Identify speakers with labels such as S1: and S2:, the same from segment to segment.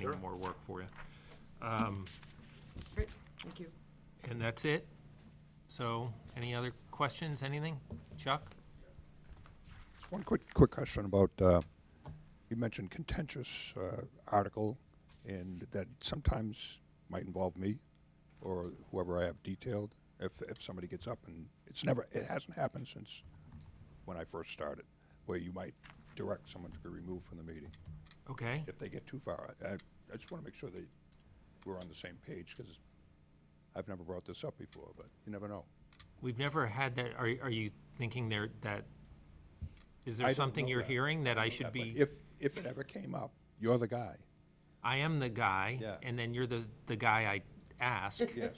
S1: Sure.
S2: more work for you. Um,
S3: Great, thank you.
S2: And that's it? So, any other questions, anything? Chuck?
S4: Just one quick, quick question about, uh, you mentioned contentious uh, article, and that sometimes might involve me or whoever I have detailed, if, if somebody gets up and, it's never, it hasn't happened since when I first started, where you might direct someone to be removed from the meeting,
S2: Okay,
S4: if they get too far. I, I I just want to make sure that we're on the same page, because I've never brought this up before, but you never know.
S2: we've never had that, are, are you thinking there, that, is
S4: I
S2: there
S4: don't
S2: something
S4: know
S2: you're
S4: that.
S2: hearing that I
S4: Yeah,
S2: should
S4: but
S2: be,
S4: If, if it ever came up, you're the guy,
S2: I am the guy,
S4: Yeah.
S2: and then you're the, the guy I ask?
S4: yes.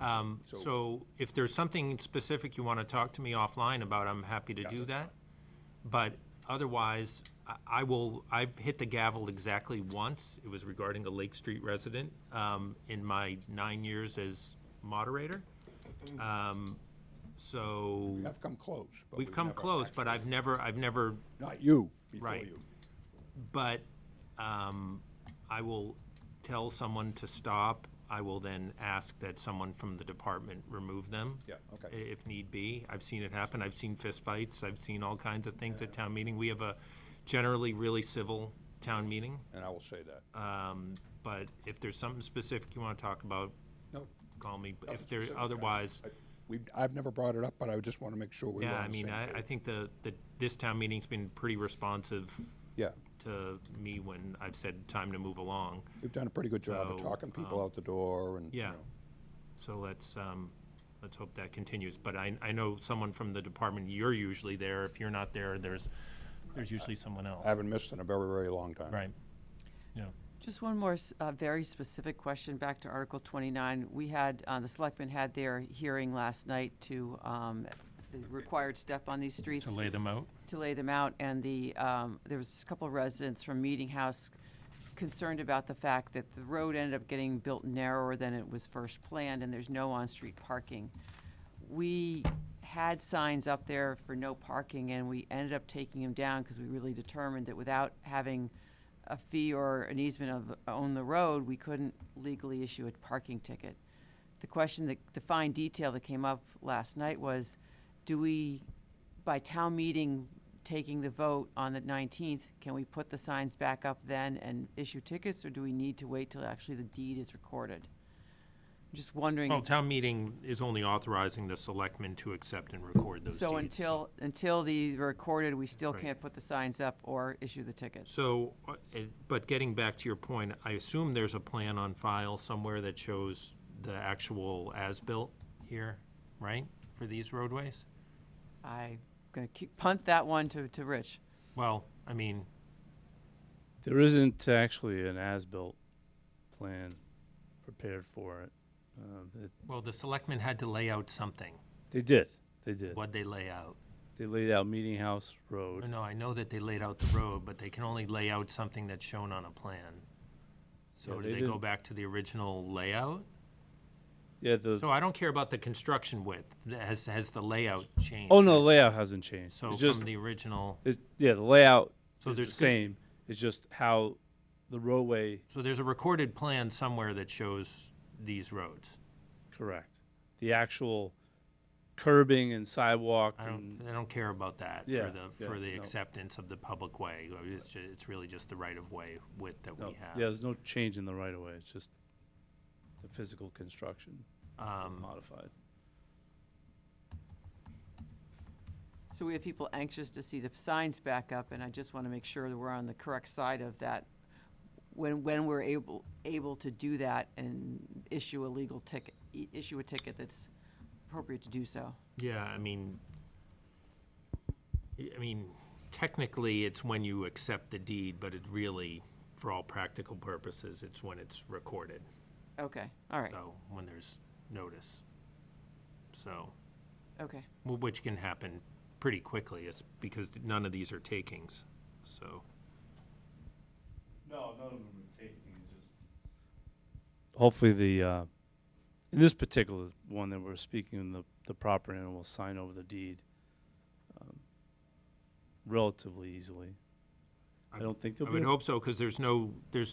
S2: Um,
S4: So-
S2: So if there's something specific you want to talk to me offline about, I'm happy to do that. But otherwise, I- I will, I've hit the gavel exactly once. It was regarding a Lake Street resident um, in my nine years as moderator. Um, So
S4: I've come close. but
S2: we've come
S4: never
S2: close, but I've never, I've never,
S4: actually- Not you, before
S2: Right.
S4: you.
S2: but um, I will tell someone to stop. I will then ask that someone from the department remove them.
S4: Yeah, okay.
S2: i- If need be. I've seen it happen. I've seen fistfights. I've seen all kinds of things at town meeting. We have a generally really civil town meeting.
S4: And I will say that.
S2: um, But if there's something specific you want to talk about,
S4: No.
S2: call me. But If
S4: nothing
S2: there,
S4: specific. I-
S2: otherwise,
S4: I- We, I've never brought it up, but I just want to make sure we're
S2: yeah, I
S4: on the same
S2: mean, I, I
S4: page.
S2: think the, the, this town meeting's been pretty responsive
S4: Yeah,
S2: to me when I've said time to move along.
S4: we've done a pretty good job of
S2: So, um,
S4: talking people out the door and, you
S2: Yeah.
S4: know,
S2: So let's, um, let's hope that continues. But I, I know someone from the department, you're usually there. If you're not there, there's, there's usually someone else.
S4: I haven't missed in a very, very long time.
S2: Right. Yeah.
S3: Just one more s- uh, very specific question back to Article 29. We had, uh, the selectmen had their hearing last night to um, the required step on these streets.
S2: To lay them out?
S3: to lay them out, and the, um, there was a couple of residents from Meeting House concerned about the fact that the road ended up getting built narrower than it was first planned, and there's no on-street parking. We had signs up there for no parking, and we ended up taking them down because we really determined that without having a fee or an easement of, on the road, we couldn't legally issue a parking ticket. The question, that the fine detail that came up last night was, do we, by town meeting, taking the vote on the 19th, can we put the signs back up then and issue tickets, or do we need to wait till actually the deed is recorded? I'm Just
S2: Well,
S3: wondering,
S2: town meeting is only authorizing the selectmen to accept and record those deeds.
S3: so until, until the recorded, we still
S2: Right.
S3: can't put the signs up or issue the tickets?
S2: So, uh, it- but getting back to your point, I assume there's a plan on file somewhere that shows the actual as-built here, right, for these roadways?
S3: I'm gonna keep- punt that one to, to Rich.
S2: Well, I mean,
S5: There isn't actually an as-built plan prepared for it. Um, it
S2: well, the selectmen had to lay out something.
S5: they did. They did.
S2: What'd they lay out?
S5: They laid out Meeting House Road.
S2: No, No, I know that they laid out the road, but they can only lay out something that's shown on a plan. So do
S5: Yeah, they
S2: they go
S5: didn't-
S2: back to the original layout?
S5: Yeah. The,
S2: So I don't care about the construction width. Has, has the layout changed?
S5: oh no, the layout hasn't changed.
S2: So
S5: it's
S2: from
S5: just
S2: the original,
S5: it's, yeah, the layout
S2: So
S5: is the
S2: there's good-
S5: same. It's just how the roadway.
S2: so there's a recorded plan somewhere that shows these roads.
S5: Correct. The actual curbing and sidewalk
S2: I don't,
S5: and
S2: I don't care about that
S5: Mm. Yeah,
S2: for the, for
S5: yeah,
S2: the
S5: no.
S2: acceptance of the public way. It's, ju- it's really just the right-of-way width that
S5: no,
S2: we
S5: yeah,
S2: have.
S5: there's no change in the right of way. It's just the physical construction
S2: Um,
S5: modified.
S3: So we have people anxious to see the signs back up, and I just want to make sure that we're on the correct side of that when, when we're able, able to do that and issue a legal ticket, i- issue a ticket that's appropriate to do so.
S2: Yeah, I mean, I I mean, technically, it's when you accept the deed, but it really, for all practical purposes, it's when it's recorded,
S3: Okay, all right,
S2: so, when there's notice. So,
S3: okay.
S2: wh- which can happen pretty quickly, it's because none of these are takings, so.
S6: No, none of them are taking, it's just
S5: hopefully the uh, in this particular one that we're speaking, the the property owner will sign over the deed um, relatively easily. I don't think
S2: I
S5: there'll be.
S2: would
S5: a-
S2: hope so, because there's no, there's